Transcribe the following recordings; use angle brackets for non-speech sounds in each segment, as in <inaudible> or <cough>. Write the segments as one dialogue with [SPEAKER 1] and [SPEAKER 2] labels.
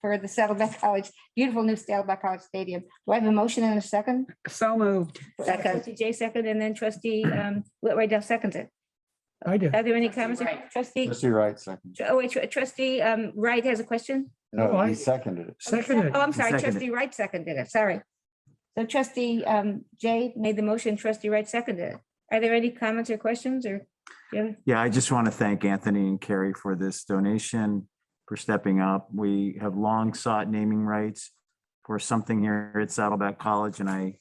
[SPEAKER 1] for the Saddleback <laughs> College, beautiful new Saddleback College Stadium. Do I have a motion and a second?
[SPEAKER 2] So moved.
[SPEAKER 3] Second.
[SPEAKER 1] Trustee Jay second and then trustee um, Whitwright Dell seconds it.
[SPEAKER 2] I did.
[SPEAKER 1] Are there any
[SPEAKER 3] Trustee
[SPEAKER 1] comments?
[SPEAKER 3] Wright.
[SPEAKER 1] Trustee,
[SPEAKER 4] Trustee Wright, second.
[SPEAKER 1] tr- oh, wait, tr- trustee um, Wright has a question?
[SPEAKER 2] No,
[SPEAKER 4] No,
[SPEAKER 2] I-
[SPEAKER 4] he seconded it.
[SPEAKER 2] Seconded.
[SPEAKER 1] Oh, I'm sorry,
[SPEAKER 5] Seconded.
[SPEAKER 1] trustee Wright seconded it, sorry. So trustee um, Jay made the motion, trustee Wright seconded it. Are there any comments or questions or? yeah?
[SPEAKER 5] Yeah, I just want to thank Anthony and Carrie for this donation, for stepping up. We have long sought naming rights for something here at Saddleback College, and I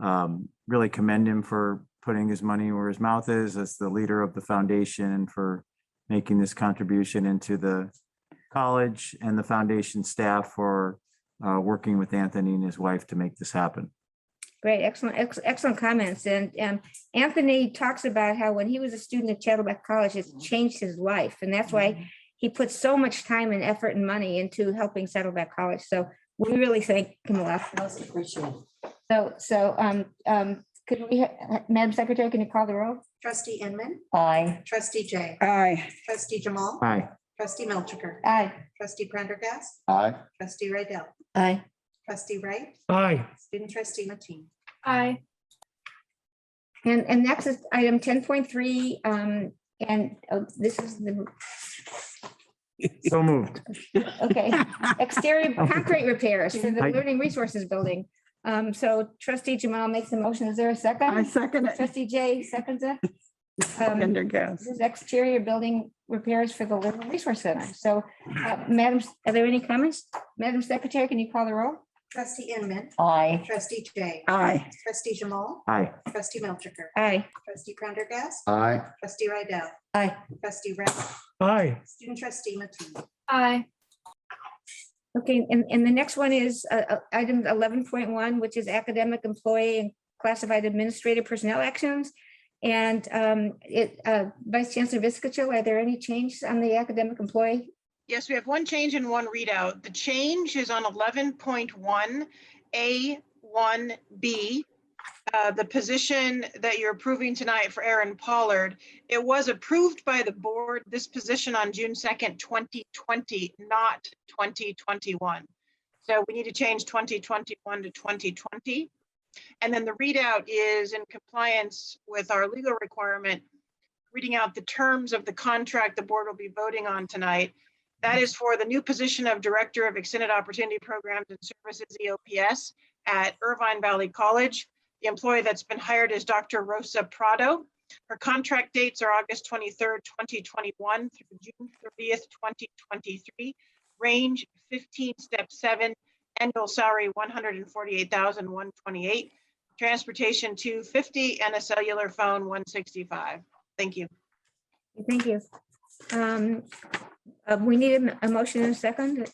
[SPEAKER 5] um, really commend him for putting his money where his mouth is as the leader of the foundation and for making this contribution into the college and the foundation staff for uh, working with Anthony and his wife to make this happen.
[SPEAKER 1] Great, excellent, ex- excellent comments. And um, Anthony talks about how when he was a student at Chattelback College, it's changed his life. And that's why he put so much time and effort and money into helping Saddleback College. So we really thank him a lot.
[SPEAKER 3] Most appreciated.
[SPEAKER 1] So, so um, um, could we, ha- Madam Secretary, can you call the roll?
[SPEAKER 6] Trustee Inman,
[SPEAKER 3] Aye.
[SPEAKER 6] trustee Jay,
[SPEAKER 2] Aye.
[SPEAKER 6] trustee Jamal,
[SPEAKER 5] Hi,
[SPEAKER 6] trustee Melchiker,
[SPEAKER 1] Aye.
[SPEAKER 6] trustee Prendergast,
[SPEAKER 4] Aye.
[SPEAKER 6] trustee Rydell,
[SPEAKER 3] Aye.
[SPEAKER 6] trustee Wright,
[SPEAKER 2] Aye.
[SPEAKER 6] student trustee Matee.
[SPEAKER 3] Aye.
[SPEAKER 1] And, and next is item ten point three, um, and oh, this is the,
[SPEAKER 5] so moved.
[SPEAKER 1] okay. Exterior concrete repairs for the
[SPEAKER 5] I-
[SPEAKER 1] Learning Resources Building. Um, so trustee Jamal makes the motion. Is there a second?
[SPEAKER 2] I second it.
[SPEAKER 1] Trustee Jay seconds it. Um,
[SPEAKER 2] Pendergast.
[SPEAKER 1] This is exterior building repairs for the Learning Resource Center. So, uh, Madam, are there any comments? Madam Secretary, can you call the roll?
[SPEAKER 6] Trustee Inman,
[SPEAKER 3] Aye.
[SPEAKER 6] trustee Jay,
[SPEAKER 2] Aye.
[SPEAKER 6] trustee Jamal,
[SPEAKER 5] Hi,
[SPEAKER 6] trustee Melchiker,
[SPEAKER 1] Aye.
[SPEAKER 6] trustee Prendergast,
[SPEAKER 4] Aye.
[SPEAKER 6] trustee Rydell,
[SPEAKER 3] Aye.
[SPEAKER 6] trustee Wright,
[SPEAKER 2] Aye.
[SPEAKER 6] student trustee Matee.
[SPEAKER 3] Aye.
[SPEAKER 1] Okay, and, and the next one is uh, uh, item eleven point one, which is academic employee and classified administrative personnel actions. And um, it, uh, Vice Chancellor Viscacho, are there any changes on the academic employee?
[SPEAKER 7] Yes, we have one change and one readout. The change is on eleven point one, A one B. Uh, the position that you're approving tonight for Aaron Pollard, it was approved by the board, this position on June second, twenty twenty, not twenty twenty-one. So we need to change twenty twenty-one to twenty twenty. And then the readout is in compliance with our legal requirement, reading out the terms of the contract the board will be voting on tonight. That is for the new position of Director of Extended Opportunity Programs and Services, E EOPS, at Irvine Valley College. The employee that's been hired is Dr. Rosa Prado. Her contract dates are August 23rd, 2021 through June 30th, 2023. Range 15, Step 7, annual salary 148,128. Transportation 250 and a cellular phone 165. Thank you.
[SPEAKER 1] Thank you. Um, uh, We need a m- a motion in a second.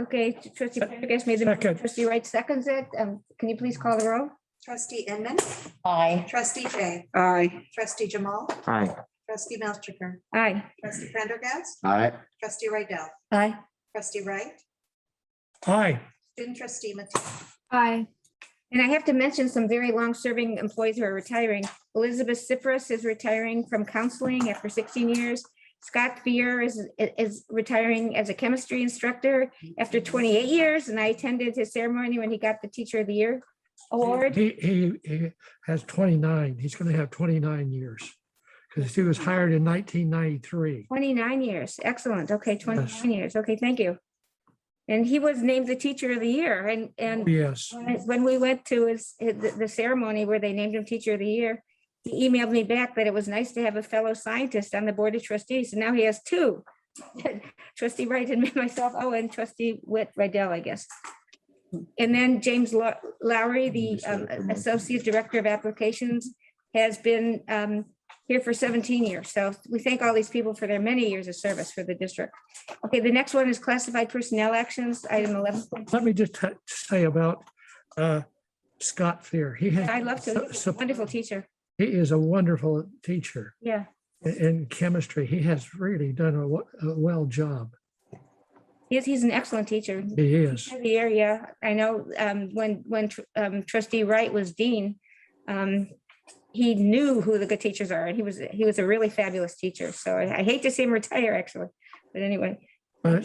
[SPEAKER 1] Okay, trustee Prendergast made the, motion.
[SPEAKER 2] Second.
[SPEAKER 1] trustee Wright seconds it. Um, Can you please call the roll?
[SPEAKER 6] Trustee Inman,
[SPEAKER 3] Aye.
[SPEAKER 6] trustee Jay,
[SPEAKER 2] Aye.
[SPEAKER 6] trustee Jamal,
[SPEAKER 5] hi,
[SPEAKER 6] trustee Melchiker,
[SPEAKER 1] Aye.
[SPEAKER 6] trustee Prendergast,
[SPEAKER 4] Aye.
[SPEAKER 6] trustee Rydell,
[SPEAKER 3] Aye.
[SPEAKER 6] trustee Wright,
[SPEAKER 2] Aye.
[SPEAKER 6] student trustee Matee.
[SPEAKER 3] Aye.
[SPEAKER 1] And I have to mention some very long-serving employees who are retiring. Elizabeth Cyprus is retiring from counseling after 16 years. Scott Fear is, is retiring as a chemistry instructor after 28 years, and I attended his ceremony when he got the Teacher of the Year award.
[SPEAKER 2] He, he, he has twenty-nine. He's gonna have twenty-nine years. Because he was hired in nineteen ninety-three.
[SPEAKER 1] 29 years, excellent. Okay, 29 years. Okay, thank you. And he was named the Teacher of the Year, and, and
[SPEAKER 2] Yes.
[SPEAKER 1] When- When we went to his, the the ceremony where they named him Teacher of the Year, he emailed me back that it was nice to have a fellow scientist on the Board of Trustees, and now he has two. <laughs> Trustee Wright and <laughs> myself, oh, and trustee Whit Riddell, I guess. And then James Low- Lowry, the um, Associate Director of Applications, has been um, here for 17 years. So we thank all these people for their many years of service for the district. Okay, the next one is classified personnel actions, item 11.
[SPEAKER 2] Let me just t- say about uh, Scott Fear. He has.
[SPEAKER 1] I love to,
[SPEAKER 2] so-
[SPEAKER 1] wonderful teacher.
[SPEAKER 2] He is a wonderful teacher
[SPEAKER 1] Yeah,
[SPEAKER 2] in- in chemistry. He has really done a wo- a well job.
[SPEAKER 1] he's, he's an excellent teacher.
[SPEAKER 2] He is.
[SPEAKER 1] The area, I know, um, when, when tr- um, trustee Wright was dean, um, he knew who the good teachers are and he was, he was a really fabulous teacher. So I I hate to see him retire actually, but anyway.
[SPEAKER 2] But